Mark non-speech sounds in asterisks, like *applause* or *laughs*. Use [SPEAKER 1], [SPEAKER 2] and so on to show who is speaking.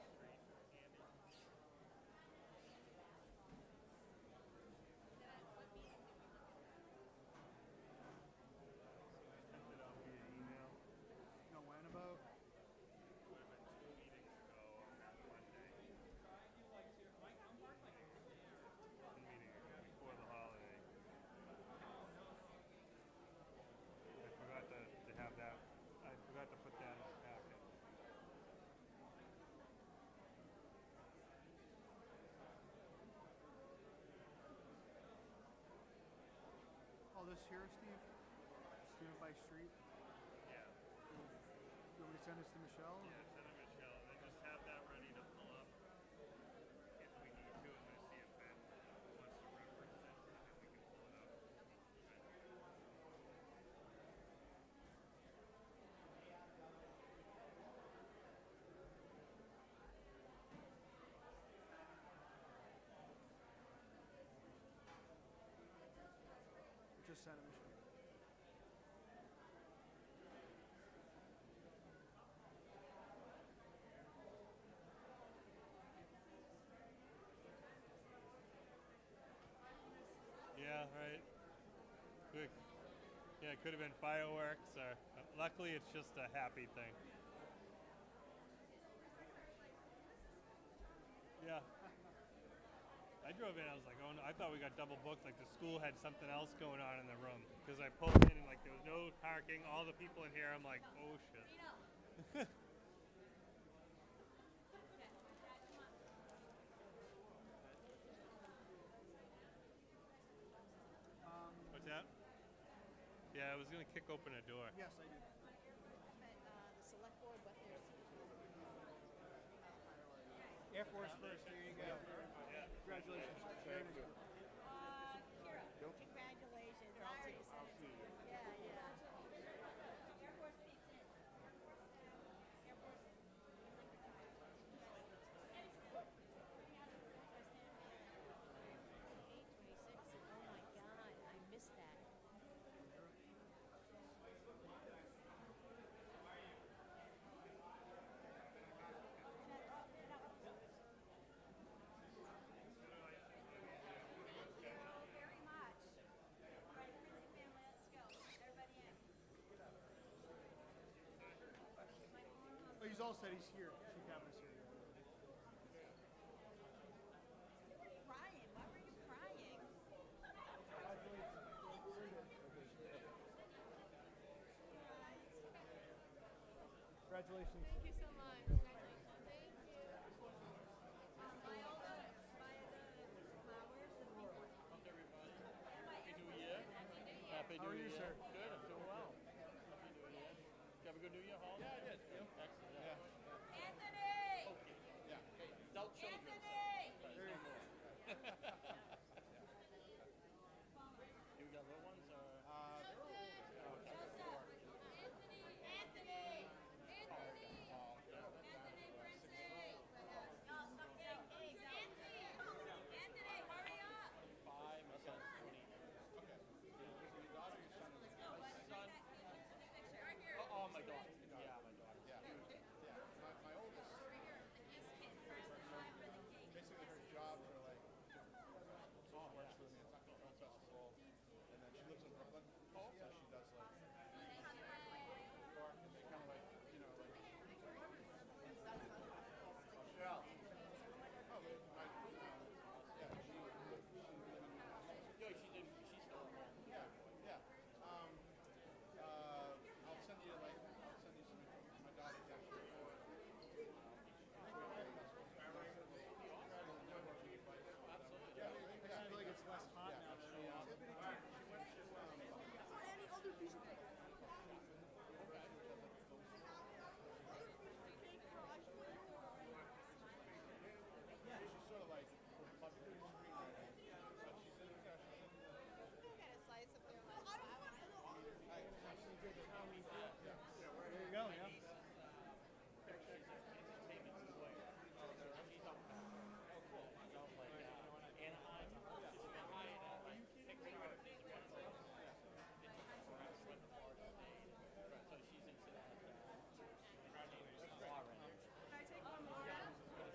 [SPEAKER 1] here, Steve? Steve by Street?
[SPEAKER 2] Yeah,
[SPEAKER 1] You want me to send this to Michelle?
[SPEAKER 2] yeah, send it Michelle, and just have that ready to pull up if we need to, and then see if Ben wants to reference it, and then we can pull it up.
[SPEAKER 1] Just send it, Michelle.
[SPEAKER 2] Yeah, right. Good. Yeah, it could have been fireworks, or uh, luckily it's just a happy thing. Yeah. I drove in. I was like, oh no! I thought we got double booked. Like the school had something else going on in the room because I pulled in and like there was no parking. All the people in here. I'm like, oh shit. *laughs* What's that? Yeah, I was gonna kick open a door.
[SPEAKER 1] Yes, I did.
[SPEAKER 3] But, uh, the select board, what there's,
[SPEAKER 1] Air Force first, there you go. Congratulations. Very nice work.
[SPEAKER 3] uh, Kira, congratulations. I already said it to you. Yeah, yeah. Air Force peeps in. Air Force. Eight twenty-six, oh my God, I missed that. Thank you very much. All right, Lindsay family, let's go. Everybody in.
[SPEAKER 1] Oh, he's all said he's here. Chief Cavanaugh's here.
[SPEAKER 3] You were crying. Why were you crying?
[SPEAKER 1] Congratulations.
[SPEAKER 4] Thank you so much. Congratulations. Thank you.
[SPEAKER 3] By all the, by the flowers and people.
[SPEAKER 2] Happy
[SPEAKER 1] How are you, sir?
[SPEAKER 3] *laughs*